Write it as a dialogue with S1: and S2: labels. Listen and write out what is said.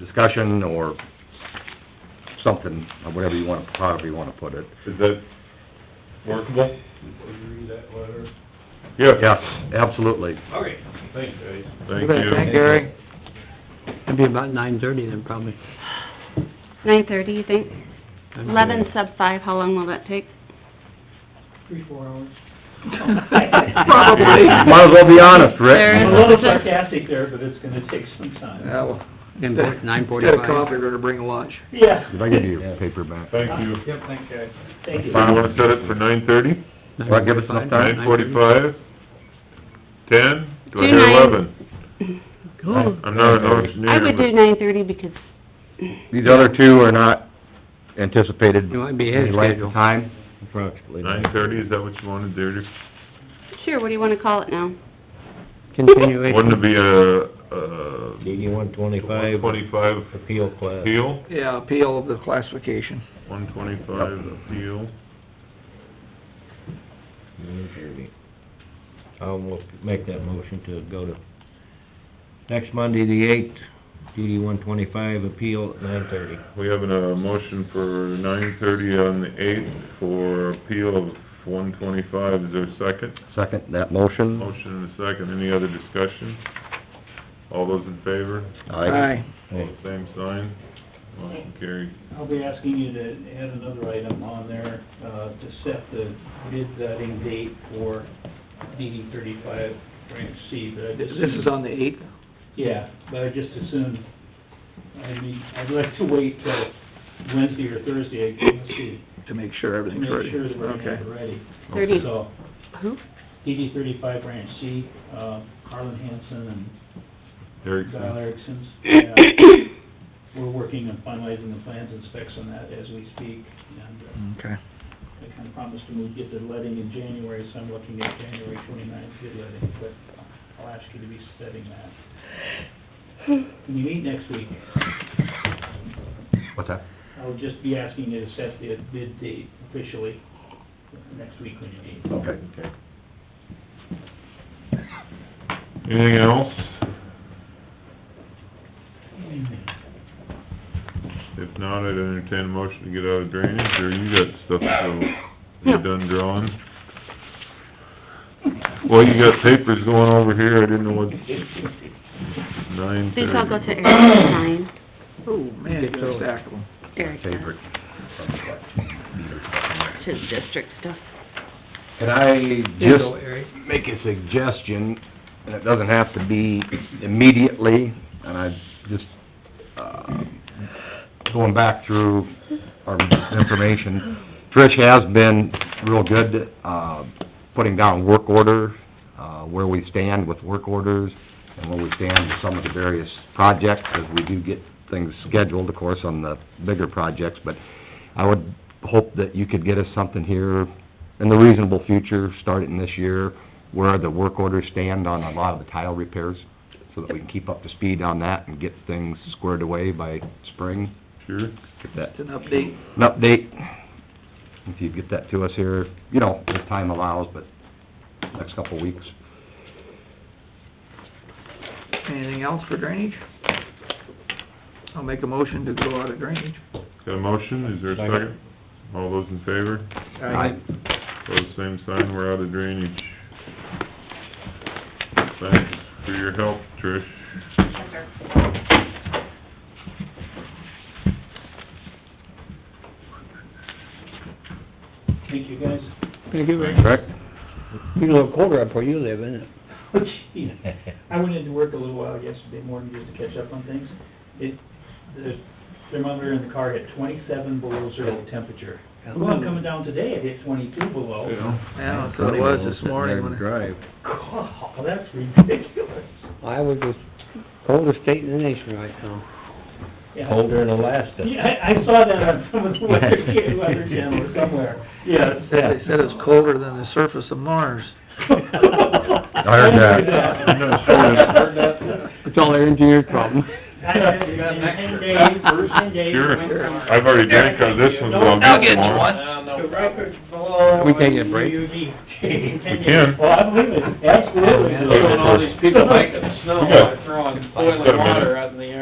S1: discussion or something, or whatever you wanna, however you wanna put it.
S2: Is that workable?
S3: Read that letter.
S1: Yes, absolutely.
S3: Okay. Thanks, guys.
S2: Thank
S4: Okay,
S2: you.
S4: Thank Gary. It'd be about nine thirty then, probably.
S5: Nine thirty, you think?
S4: I'm
S5: Eleven
S4: sure.
S5: sub five, how long will that take?
S6: three, four hours.
S4: Probably.
S1: Might as well be honest,
S5: There
S1: Rick.
S5: is-
S6: I'm a little sarcastic there, but it's gonna take some time.
S7: Well,
S4: In
S7: Got
S4: nine
S7: a coffee,
S4: forty-five.
S7: we're gonna bring a lunch.
S6: Yeah.
S1: Did I give you your paper back?
S2: Thank you.
S6: Yep, thanks, guys. Thank
S2: So
S6: you.
S2: you wanna set it for nine thirty,
S1: Well, give us enough
S2: nine
S4: 9:45.
S2: forty-five, ten, do I
S5: Do
S2: hear
S5: nine.
S2: eleven?
S4: Cool.
S2: I'm not an engineer,
S5: I would do
S2: but
S5: nine thirty because,
S1: These other two are not anticipated.
S4: You might be ahead of
S1: any length
S4: schedule.
S1: Time? Approximately.
S2: nine thirty, is that what you wanted there?
S5: sure, what do you wanna call it now?
S2: Wouldn't
S4: Continuation.
S2: it be a, a
S8: DD-one twenty-five,
S2: one twenty-five
S8: appeal class.
S2: appeal?
S7: Yeah, appeal of the classification.
S2: One twenty-five appeal,
S8: Nine thirty. I'll mo- make that motion to go to next Monday, the eighth, DD-one twenty-five appeal at nine thirty.
S2: we have a motion for nine thirty on the eighth for appeal of one twenty-five, is there a second?
S1: Second that motion.
S2: Motion and a second, any other discussion? All those in favor?
S1: Aye.
S2: All the same sign? Motion carried.
S6: I'll be asking you to add another item on there, uh, to set the bid vetting date for DD thirty-five branch C, but I
S7: This
S6: just...
S7: is on the eighth.
S6: Yeah, but I just assumed, I mean, I'd like to wait till Wednesday or Thursday, I guess, to
S7: to make sure
S6: to
S7: everything's ready.
S6: make sure that we're
S7: Okay.
S6: not ready.
S5: Thirty,
S6: So,
S5: who?
S6: DD thirty-five branch C, uh, Harlan Hanson and Guy
S2: Erickson?
S6: Erickson's, yeah. We're working on finalizing the plans and specs on that as we speak, and
S7: Okay.
S6: uh, I kind of promised him we'd get the letting in January, so I'm looking at January twenty-ninth, good letting, but I'll ask you to be setting that. When you meet next week,
S1: What's that?
S6: I'll just be asking you to set the bid date officially next week when you meet.
S1: Okay.
S2: Anything else? If not, I'd entertain a motion to get out of drainage, or you got stuff to, you done drawing? Well, you got papers going over here, I didn't know what, nine
S5: These
S2: thirty.
S5: all go to Eric, nine,
S7: Oh, man, you got a stack of them.
S5: Eric,
S1: Favorite.
S5: that's his district stuff.
S1: Can I
S4: Here you
S1: just
S4: go, Eric.
S1: make a suggestion, and it doesn't have to be immediately, and I just, uh, going back through our information, Trish has been real good, uh, putting down work order, uh, where we stand with work orders, and where we stand with some of the various projects, because we do get things scheduled, of course, on the bigger projects, but I would hope that you could get us something here in the reasonable future, starting this year, where the work orders stand on a lot of the tile repairs, so that we can keep up to speed on that and get things squared away by spring.
S2: Sure,
S1: Get that,
S7: It's an update.
S1: an update, if you get that to us here, you know, if time allows, but next couple of weeks.
S7: Anything else for drainage? I'll make a motion to go out of drainage.
S2: got a motion, is there a second? All those in favor?
S1: Aye.
S2: Pose same sign, we're out of drainage. Thanks for your help, Trish.
S6: Thank you, guys.
S4: Thank you, Rick.
S1: Correct?
S4: You know, colder up where you live, isn't it?
S6: Oh, gee. I went into work a little while yesterday morning just to catch up on things. It, the thermometer in the car hit twenty-seven below zero temperature. Well, I'm coming down today, it hit twenty-two below.
S7: Yeah, that's what it was this morning when I-
S1: Drive.
S6: God, that's ridiculous.
S4: Iowa's the coldest state in the nation right now.
S6: Yeah.
S8: Holder in Alaska.
S6: Yeah, I, I saw that on some of the weather, weather channel or somewhere. Yeah, it's-
S7: They said it's colder than the surface of Mars.
S6: I
S1: heard that.
S2: I'm not sure.
S4: It's all their engineer's problem.
S6: You got an extra. Ten days, ten days.
S2: Sure.
S6: it went from-
S2: I've already drank of this one, so I'll get some more.
S6: The records below.
S4: We can't get a break.
S6: UUD.
S2: We can.
S6: Well, I believe it, absolutely.
S1: They want all these
S6: people
S2: We got-
S9: throwing boiling
S2: Got a minute.
S9: water out in the